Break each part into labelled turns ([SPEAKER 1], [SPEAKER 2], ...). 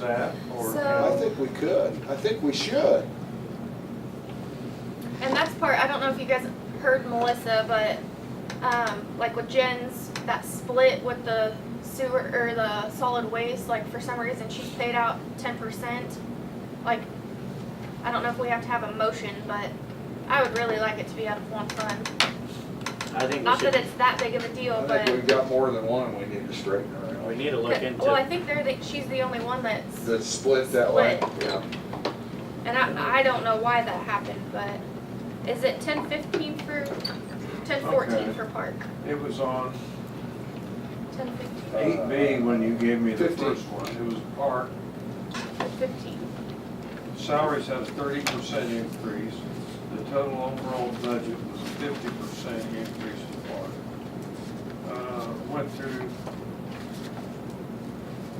[SPEAKER 1] that, or?
[SPEAKER 2] So-
[SPEAKER 1] how-
[SPEAKER 3] I think we could, I think we should.
[SPEAKER 2] And that's part, I don't know if you guys heard Melissa, but um, like with Jen's, that split with the sewer or the solid waste, like for some reason she paid out 10%. Like, I don't know if we have to have a motion, but I would really like it to be out of one fund.
[SPEAKER 4] I think we
[SPEAKER 2] Not that
[SPEAKER 4] should,
[SPEAKER 2] it's that big of a deal,
[SPEAKER 3] I
[SPEAKER 2] but.
[SPEAKER 3] think we've got more than one we need to straighten around.
[SPEAKER 4] we need to look
[SPEAKER 2] well, I
[SPEAKER 4] into,
[SPEAKER 2] think they're the, she's the only one that's.
[SPEAKER 3] That split that way,
[SPEAKER 2] Split.
[SPEAKER 3] yeah.
[SPEAKER 2] And I, I don't know why that happened, but is it 1015 for. 1014
[SPEAKER 1] Okay.
[SPEAKER 2] for park.
[SPEAKER 1] It was on
[SPEAKER 2] 1015.
[SPEAKER 1] eight B when you gave me the
[SPEAKER 3] Fifteen.
[SPEAKER 1] first one, it was park,
[SPEAKER 2] 15.
[SPEAKER 1] salaries had a thirty percent increase, the total overall budget was a fifty percent increase in park. Uh, went through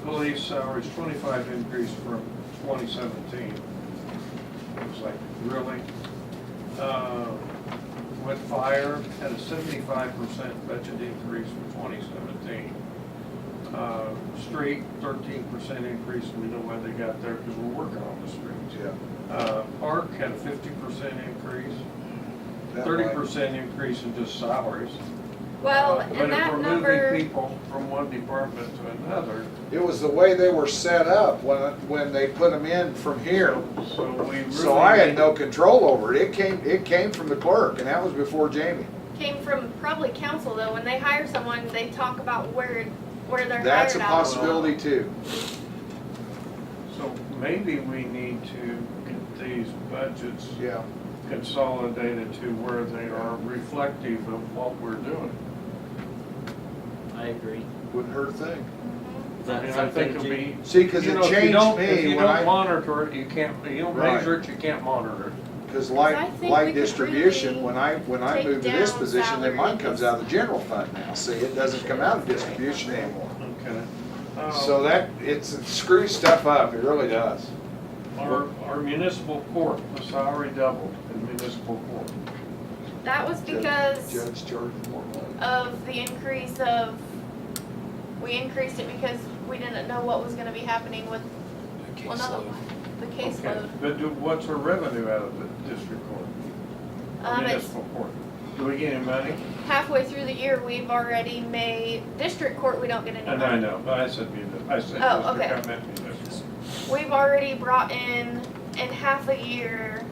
[SPEAKER 1] police salaries, twenty-five increase from twenty seventeen. It was like, really? Uh, Went fire, had a seventy-five percent budget increase from twenty seventeen. Uh, Street, thirteen percent increase, we know why they got there, because we're working on the streets.
[SPEAKER 3] Yeah,
[SPEAKER 1] Uh, Park had a fifty percent increase,
[SPEAKER 3] that
[SPEAKER 1] thirty
[SPEAKER 3] way.
[SPEAKER 1] percent increase in just salaries.
[SPEAKER 2] Well,
[SPEAKER 1] Uh,
[SPEAKER 2] and that
[SPEAKER 1] But if we're moving
[SPEAKER 2] number,
[SPEAKER 1] people from one department to another,
[SPEAKER 3] It was the way they were set up when, when they put them in from here.
[SPEAKER 1] so we really.
[SPEAKER 3] So I had
[SPEAKER 1] need-
[SPEAKER 3] no control over it. It came, it came from the clerk and that was before Jamie.
[SPEAKER 2] came from probably council though, when they hire someone, they talk about where, where they're hired out.
[SPEAKER 3] That's a
[SPEAKER 2] of.
[SPEAKER 3] possibility too.
[SPEAKER 1] So maybe we need to get these budgets
[SPEAKER 3] Yeah,
[SPEAKER 1] consolidated to where they are reflective of what we're doing.
[SPEAKER 4] I agree.
[SPEAKER 3] wouldn't hurt a thing.
[SPEAKER 4] Is
[SPEAKER 1] I
[SPEAKER 4] that
[SPEAKER 1] mean, I think it'll
[SPEAKER 4] something you-
[SPEAKER 1] be.
[SPEAKER 3] See, cause
[SPEAKER 1] you
[SPEAKER 3] it
[SPEAKER 1] know, if you
[SPEAKER 3] changed
[SPEAKER 1] don't- If
[SPEAKER 3] me
[SPEAKER 1] you
[SPEAKER 3] when
[SPEAKER 1] don't
[SPEAKER 3] I,
[SPEAKER 1] monitor it, you can't, you don't
[SPEAKER 3] Right.
[SPEAKER 1] measure it, you can't monitor it.
[SPEAKER 3] cause
[SPEAKER 2] I
[SPEAKER 3] light,
[SPEAKER 2] think we
[SPEAKER 3] light
[SPEAKER 2] could
[SPEAKER 3] distribution,
[SPEAKER 2] really
[SPEAKER 3] when I, when I
[SPEAKER 2] take
[SPEAKER 3] moved to this
[SPEAKER 2] down
[SPEAKER 3] position, then mine comes
[SPEAKER 2] salaries.
[SPEAKER 3] out of the general fund now. See, it doesn't come out of distribution anymore.
[SPEAKER 1] Okay. Um,
[SPEAKER 3] So that, it's, it screws stuff up, it really does.
[SPEAKER 1] Our, our municipal court, the salary doubled in municipal court.
[SPEAKER 2] That was because
[SPEAKER 3] Judge charged more money.
[SPEAKER 2] of the increase of, we increased it because we didn't know what was gonna be happening with, well, not the, the
[SPEAKER 1] Okay.
[SPEAKER 2] caseload.
[SPEAKER 1] But do, what's our revenue out of the district court,
[SPEAKER 2] Um, it's
[SPEAKER 1] municipal court? Do we get any money?
[SPEAKER 2] halfway through the year, we've already made, district court, we don't get any
[SPEAKER 1] And
[SPEAKER 2] money.
[SPEAKER 1] Oh, I know, but I said municipal, I said
[SPEAKER 2] Oh,
[SPEAKER 1] district, I meant municipal.
[SPEAKER 2] We've already brought in, in half a year,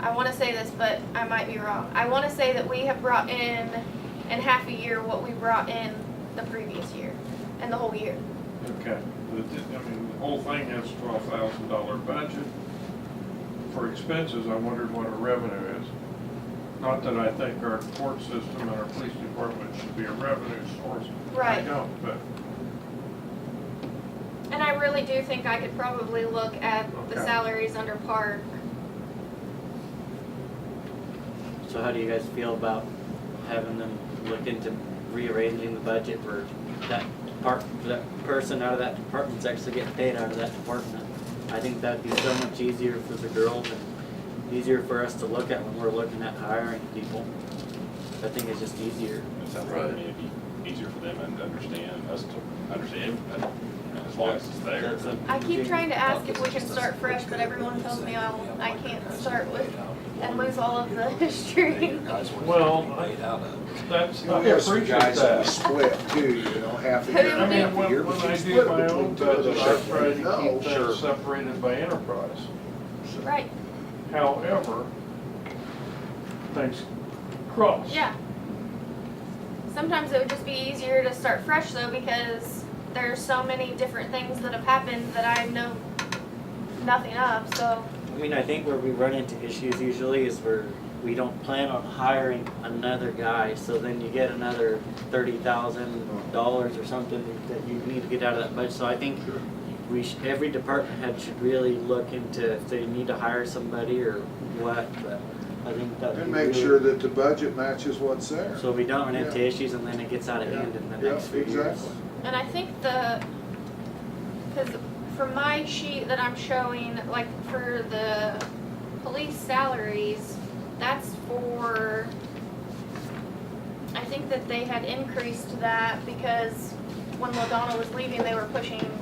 [SPEAKER 2] I wanna say this, but I might be wrong. I wanna say that we have brought in, in half a year, what we brought in the previous year, and the whole year.
[SPEAKER 1] Okay, The di- I mean, the whole thing has twelve thousand dollar budget. For expenses, I wondered what our revenue is. Not that I think our court system and our police department should be a revenue source. I
[SPEAKER 2] Right.
[SPEAKER 1] don't, but,
[SPEAKER 2] And I really do think I could probably look at the
[SPEAKER 1] Okay.
[SPEAKER 2] salaries under park.
[SPEAKER 4] So how do you guys feel about having them look into rearranging the budget for that part, for that person out of that department's actually getting paid out of that department? I think that'd be so much easier for the girls and easier for us to look at when we're looking at hiring people. I think it's just easier.
[SPEAKER 5] It sounds like, I mean, it'd be easier for them and to understand, us to understand, but as long as it's there.
[SPEAKER 4] That's a
[SPEAKER 2] I keep
[SPEAKER 4] big-
[SPEAKER 2] trying to ask if we can start fresh, but everyone tells me I, I can't start with, and lose all of the history.
[SPEAKER 1] Well,
[SPEAKER 6] Well,
[SPEAKER 1] that's,
[SPEAKER 3] We
[SPEAKER 1] I
[SPEAKER 3] have some
[SPEAKER 1] appreciate
[SPEAKER 3] guys that
[SPEAKER 1] that.
[SPEAKER 3] split too, you know, half the
[SPEAKER 2] Who
[SPEAKER 3] year.
[SPEAKER 1] I
[SPEAKER 3] half
[SPEAKER 1] mean,
[SPEAKER 3] the
[SPEAKER 1] when,
[SPEAKER 3] year,
[SPEAKER 1] when
[SPEAKER 3] but
[SPEAKER 1] I
[SPEAKER 3] you
[SPEAKER 1] do
[SPEAKER 3] split
[SPEAKER 1] my
[SPEAKER 3] between
[SPEAKER 1] own
[SPEAKER 3] two of
[SPEAKER 1] budget, I
[SPEAKER 3] us.
[SPEAKER 1] try to
[SPEAKER 3] No,
[SPEAKER 1] keep
[SPEAKER 3] sure.
[SPEAKER 1] things separated by enterprise.
[SPEAKER 2] Right,
[SPEAKER 1] However, things cross.
[SPEAKER 2] yeah. Sometimes it would just be easier to start fresh though, because there's so many different things that have happened that I know nothing of, so.
[SPEAKER 4] I mean, I think where we run into issues usually is where we don't plan on hiring another guy, so then you get another thirty thousand dollars or something that you need to get out of that budget, so I think we should, every department head should really look into if they need to hire somebody or what, but I think that.
[SPEAKER 3] And make sure that the budget matches what's there.
[SPEAKER 4] So we don't run into
[SPEAKER 3] Yeah.
[SPEAKER 4] issues and then it gets out of hand in the
[SPEAKER 3] Yeah,
[SPEAKER 4] next few years.
[SPEAKER 3] exactly.
[SPEAKER 2] And I think the, because from my sheet that I'm showing, like for the police salaries, that's for, I think that they had increased that because when LaDonna was leaving, they were pushing